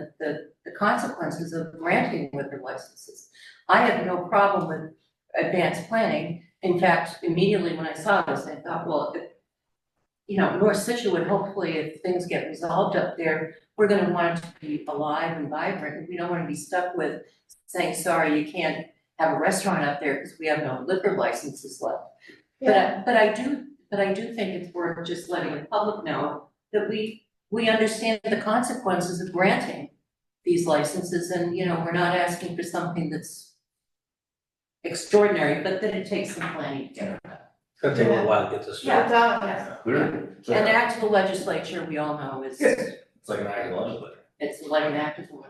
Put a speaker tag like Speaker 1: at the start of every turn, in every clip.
Speaker 1: the, the, the consequences of granting liquor licenses. I have no problem with advanced planning. In fact, immediately when I saw this, I thought, well, if, you know, North Situate, hopefully if things get resolved up there, we're gonna want it to be alive and vibrant. We don't wanna be stuck with saying, sorry, you can't have a restaurant up there because we have no liquor licenses left. But I, but I do, but I do think it's worth just letting the public know that we, we understand the consequences of granting these licenses and, you know, we're not asking for something that's extraordinary, but that it takes some planning to get around.
Speaker 2: It's gonna take a little while to get this.
Speaker 1: Yeah.
Speaker 3: Without-
Speaker 4: Clearly. It's
Speaker 1: And
Speaker 4: like-
Speaker 1: act of the legislature, we all know is,
Speaker 4: Yes. It's like an act of legislature.
Speaker 1: it's like an act of the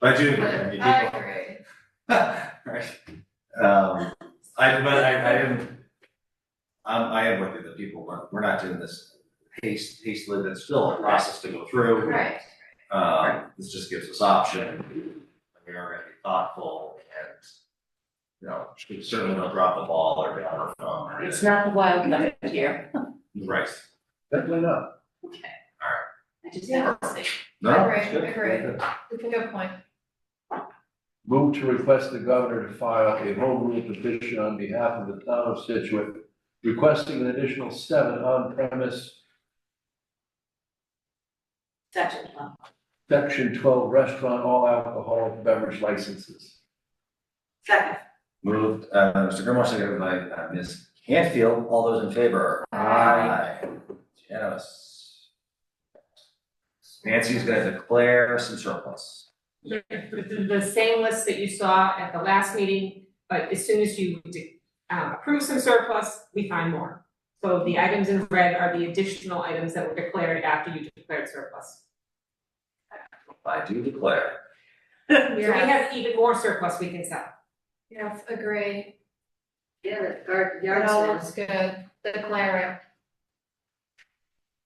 Speaker 4: But I do, agree, I mean,
Speaker 3: I
Speaker 4: people-
Speaker 3: agree.
Speaker 4: Right. Um, I, but I, I am, um, I am with you that people, weren't- we're not doing this haste, hastily, that's still a process to go through.
Speaker 3: Right,
Speaker 4: Um, this just gives us option, we are gonna be thoughtful and, you know, we certainly don't drop the ball or get on our phone or
Speaker 1: It's not the wild left here.
Speaker 4: Right,
Speaker 2: Definitely not.
Speaker 1: Okay. I just have to say,
Speaker 4: no,
Speaker 3: Agree,
Speaker 4: it's good.
Speaker 3: agree. it's a good point.
Speaker 2: Move to request the governor to file a home rule petition on behalf of the town of Situate, requesting an additional seven on-premise
Speaker 1: that's it. Um,
Speaker 2: section twelve restaurant all alcohol beverage licenses.
Speaker 1: Second.
Speaker 4: Moved, uh, Mr. Grimmer, seconded by uh, Ms. Canfield, all those in favor?
Speaker 3: Aye.
Speaker 4: Unanimous. Nancy's gonna declare some surplus.
Speaker 5: The, the same list that you saw at the last meeting, but as soon as you de- uh, approve some surplus, we find more. So the items in red are the additional items that were declared after you declared surplus.
Speaker 4: I do declare.
Speaker 5: So we have even more surplus we can sell.
Speaker 3: Yes, agree.
Speaker 1: Yeah, the guard,
Speaker 3: It all looks good. Declare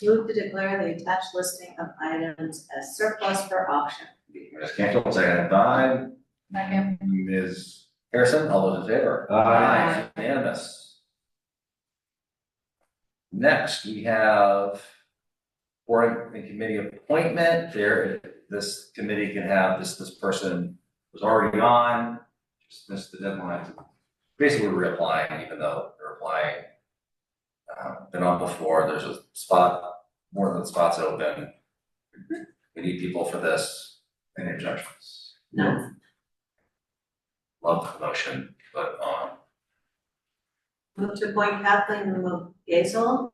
Speaker 6: Move to declare the attached listing of items as surplus for auction.
Speaker 4: Ms. Canfield, seconded by
Speaker 3: it. Second.
Speaker 4: Ms. Harrison, all those in favor?
Speaker 2: Aye.
Speaker 4: Unanimous. Next, we have board and committee appointment. There, this committee can have, this, this person was already on, just missed the deadline. Basically, we're reapplying, even though they're applying. uh, Been on before, there's a spot, more than spots open. We need people for this, any objections?
Speaker 1: No.
Speaker 4: Love the motion, but, um,
Speaker 6: Move to appoint Kathleen Lemo Gazel,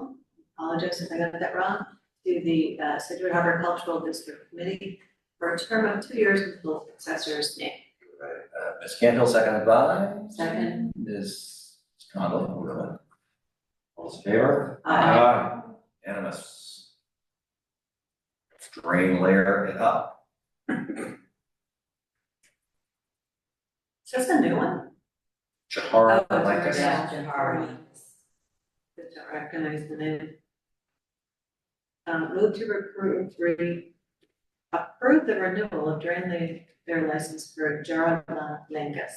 Speaker 6: apologize if I got that wrong, to the uh, Situate Harbor Cultural District Committee for a term of two years until successor's name.
Speaker 4: Uh, Ms. Canfield, seconded by
Speaker 1: Second.
Speaker 4: Ms. Conlon, who wrote it? All those in favor?
Speaker 2: Uh,
Speaker 6: Aye.
Speaker 4: Unanimous. Drain layer it up.
Speaker 6: Is this a new one?
Speaker 4: Chahar,
Speaker 6: Oh,
Speaker 4: uh, like
Speaker 6: it's
Speaker 4: this.
Speaker 1: yeah.
Speaker 6: Jahari. Good to recognize the name. Um, move to recruit three, approve the renewal of Drain Lake, their license for Gerald Langus.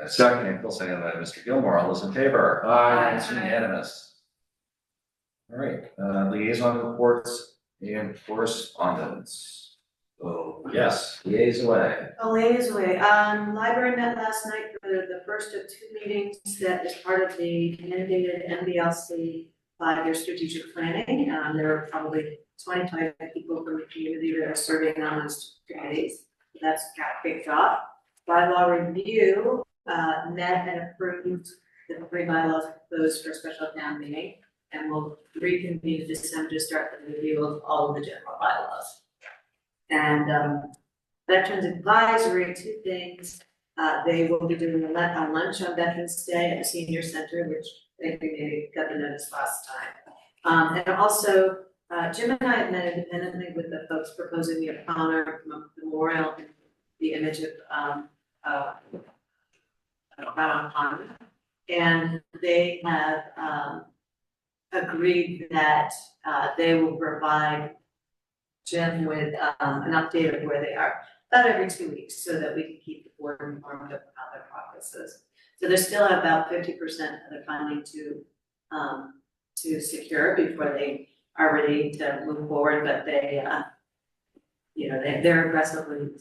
Speaker 4: Ms. Canfield, seconded by Mr. Gilmore. All those in favor?
Speaker 2: Aye.
Speaker 4: It's unanimous. All right, uh, liaison reports and correspondence. So, yes, liaise away.
Speaker 6: Oh, ladies, way, um, library met last night for the first of two meetings that is part of the mandated MBLC five-year strategic planning. Um, there are probably 25 people from the community that are serving on those committees. That's got picked up. Bylaw review, uh, met and approved the three bylaws proposed for special town meeting. And we'll reconvene this time to start the review of all of the general bylaws. And, um, Veterans Advisory, two things. Uh, they will be doing a lun- a lunch on Veterans Day at the Senior Center, which they maybe got the notice last time. Um, and also, uh, Jim and I have met independently with the folks proposing the honor memorial, the image of, um, uh, Brown Pond. um, And they have, um, agreed that, uh, they will provide Jim with, um, an update of where they are about every two weeks so that we can keep the board informed of how their progress is. So there's still about fifty percent of the funding to, um, to secure before they are ready to move forward, but they, uh, you know, they, they're aggressively